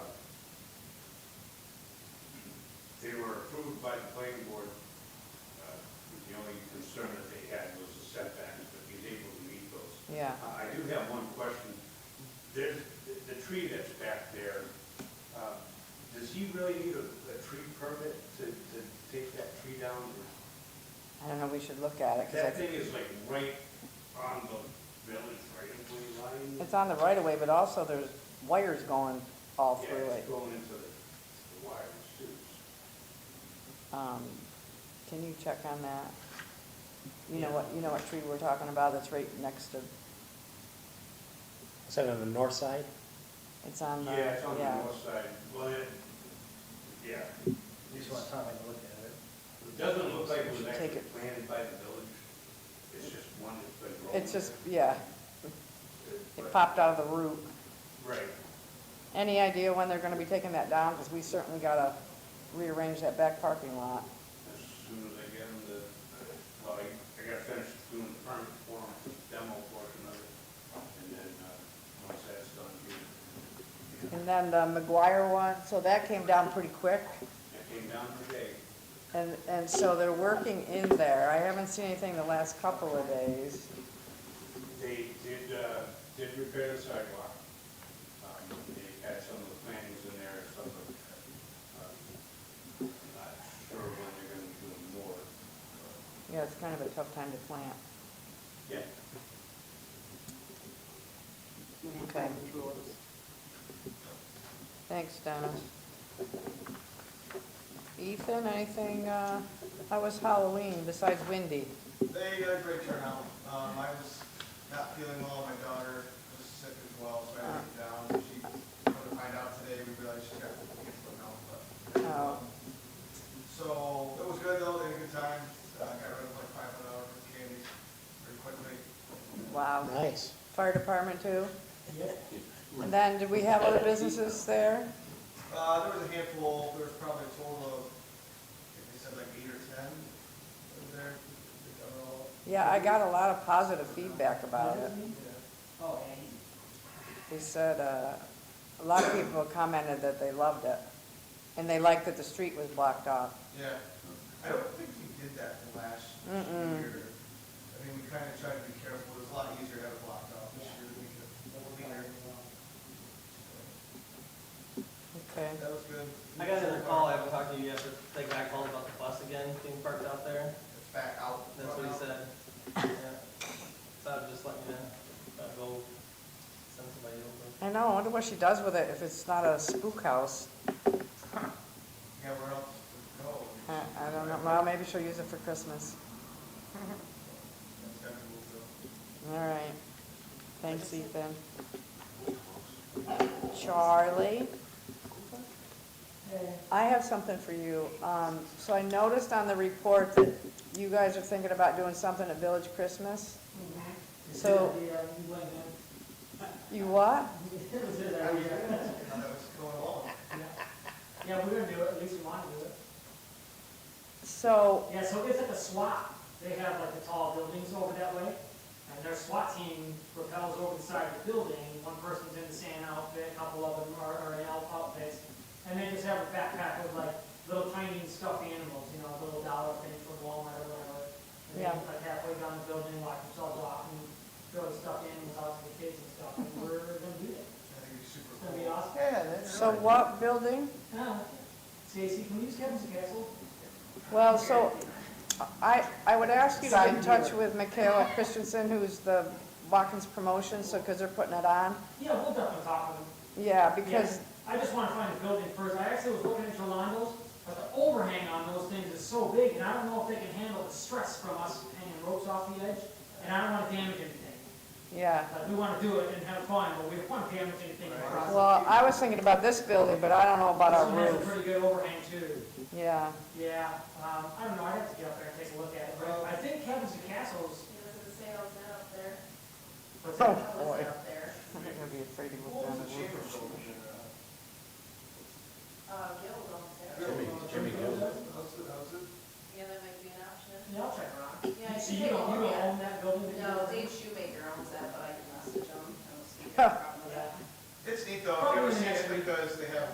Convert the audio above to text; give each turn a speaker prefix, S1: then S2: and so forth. S1: uh, concern that they had was the setbacks, but he's able to meet those.
S2: yeah.
S1: Uh, I do have one question. There's, the- the tree that's back there, uh, does he really need a, a tree permit to, to take that tree down?
S2: I don't know, we should look at it,
S1: That
S2: because
S1: thing is like right on the village right of way line.
S2: it's on the right of way, but also there's wires going all through
S1: Yeah,
S2: it.
S1: it's going into the, the wires too.
S2: Um, Can you check on that? You know what, you know what tree we're talking about, that's right next to,
S3: Is that on the north side?
S2: it's on the,
S1: Yeah, it's on the
S2: Uh-huh. yeah.
S1: north side, well, it, yeah.
S4: You just want time to look at it.
S1: It doesn't look like it was
S2: Should
S1: actually
S2: take it.
S1: planted by the village, it's just one that's been growing.
S2: It's just, yeah,
S1: there.
S2: it popped out of the root.
S1: Right,
S2: Any idea when they're gonna be taking that down? Because we certainly gotta rearrange that back parking lot.
S1: as soon as I get them to, well, I, I gotta finish doing the permit form, demo portion of it, and then, uh, once that's done, you,
S2: And then the McGuire one, so that came down pretty quick.
S1: I came down today,
S2: And, and so they're working in there. I haven't seen anything the last couple of days.
S1: they did, uh, did repair the sidewalk. Um, they had some of the plantings in there, some of, uh, I'm not sure when they're gonna do more.
S2: Yeah, it's kind of a tough time to plant.
S1: Yeah,
S2: Okay. Thanks, Dennis. Ethan, anything, uh, how was Halloween besides windy?
S5: They got a great turnout. Um, I was not feeling well, my daughter was sick as well, so I had to get down. She, come to find out today, we realized she's got kids going out, but.
S2: Oh,
S5: um, So, it was good though, they had a good time. Uh, got rid of like five hundred dollars of candy pretty quickly.
S2: wow.
S3: Nice.
S2: Fire department too?
S4: Yeah.
S2: And then, did we have other businesses there?
S5: Uh, there was a handful, there was probably a total of, I think they said like eight or ten over there. They got all-
S2: Yeah, I got a lot of positive feedback about it.
S5: Yeah.
S4: Oh,
S2: They said, uh, a lot of people commented that they loved it, and they liked that the street was blocked off.
S5: Yeah, I don't think we did that last
S2: Mm-mm.
S5: year. I mean, we kind of tried to be careful, it was a lot easier to have it blocked off this year, we could, we'll be there.
S2: Okay.
S5: That was good.
S6: I got another call, I haven't talked to you yet, but they got called about the bus again being parked out there,
S5: It's back out.
S6: that's what he said. Yeah. So I'll just let you know, I'll go send somebody over.
S2: I know, I wonder what she does with it if it's not a spook house.
S5: Yeah, where else to go?
S2: I, I don't know, well, maybe she'll use it for Christmas.
S5: It's gotta be moved up.
S2: All right. Thanks, Ethan. Charlie? I have something for you. Um, so I noticed on the report that you guys are thinking about doing something at Village Christmas. So- You what?
S5: I was gonna ask you how that was going along.
S4: Yeah, we're gonna do it, at least we wanna do it.
S2: So,
S4: Yeah, so it's like a SWAT, they have like the tall buildings over that way, and their SWAT team propels over the side of the building, one person's in the sand outfit, a couple of them are, are in elf outfits, and they just have a backpack with like little tiny stuffed animals, you know, little dollar things from Walmart or whatever. And they
S2: Yeah.
S4: like halfway down the building, lock themselves off and throw the stuffed animals out to the kids and stuff, and we're gonna do that,
S5: I think it's super
S4: it's gonna be
S5: cool.
S4: awesome.
S2: so what building?
S4: Yeah, Oh, Stacy, can you just get us a castle?
S2: Well, so I, I would ask you to get in touch with Michaela Christensen, who's the Watkins Promotion, so, because they're putting it on.
S4: Yeah, we'll definitely talk with them.
S2: Yeah, because
S4: I just want to find a building first. I actually was looking at Jolando's, but the overhang on those things is so big, and I don't know if they can handle the stress from us hanging ropes off the edge, and I don't want to damage anything.
S2: Yeah,
S4: Like, we want to do it and have fun, but we don't want to damage anything in the process.
S2: well, I was thinking about this building, but I don't know about our
S4: This one has a
S2: roof.
S4: pretty good overhang too.
S2: Yeah,
S4: Yeah, um, I don't know, I'd have to get up there and take a look at it, but I think Kevin's and Castle's,
S7: He was in sales and up there.
S4: what's
S2: Oh.
S4: that?
S7: I was up there.
S2: I'm not gonna be afraid to
S5: What
S2: look
S5: was
S2: down
S5: the
S2: the
S5: chamber
S2: roof.
S5: building? uh,
S7: Uh, Gil was on sale.
S3: Jimmy- Jimmy Gil's.
S5: How's it, how's it?
S7: Yeah, that might be an option.
S4: Yeah, I'll check around.
S7: Yeah, I
S4: So
S7: can
S4: you
S7: take a
S4: don't, you
S7: look
S4: don't
S7: at it.
S4: own that building? that
S7: No,
S4: you-
S7: Dave Shoemaker owns that, but I can message him. I don't see a problem with that.
S5: It's neat though,
S4: Probably
S5: it was
S4: next
S5: neat because they have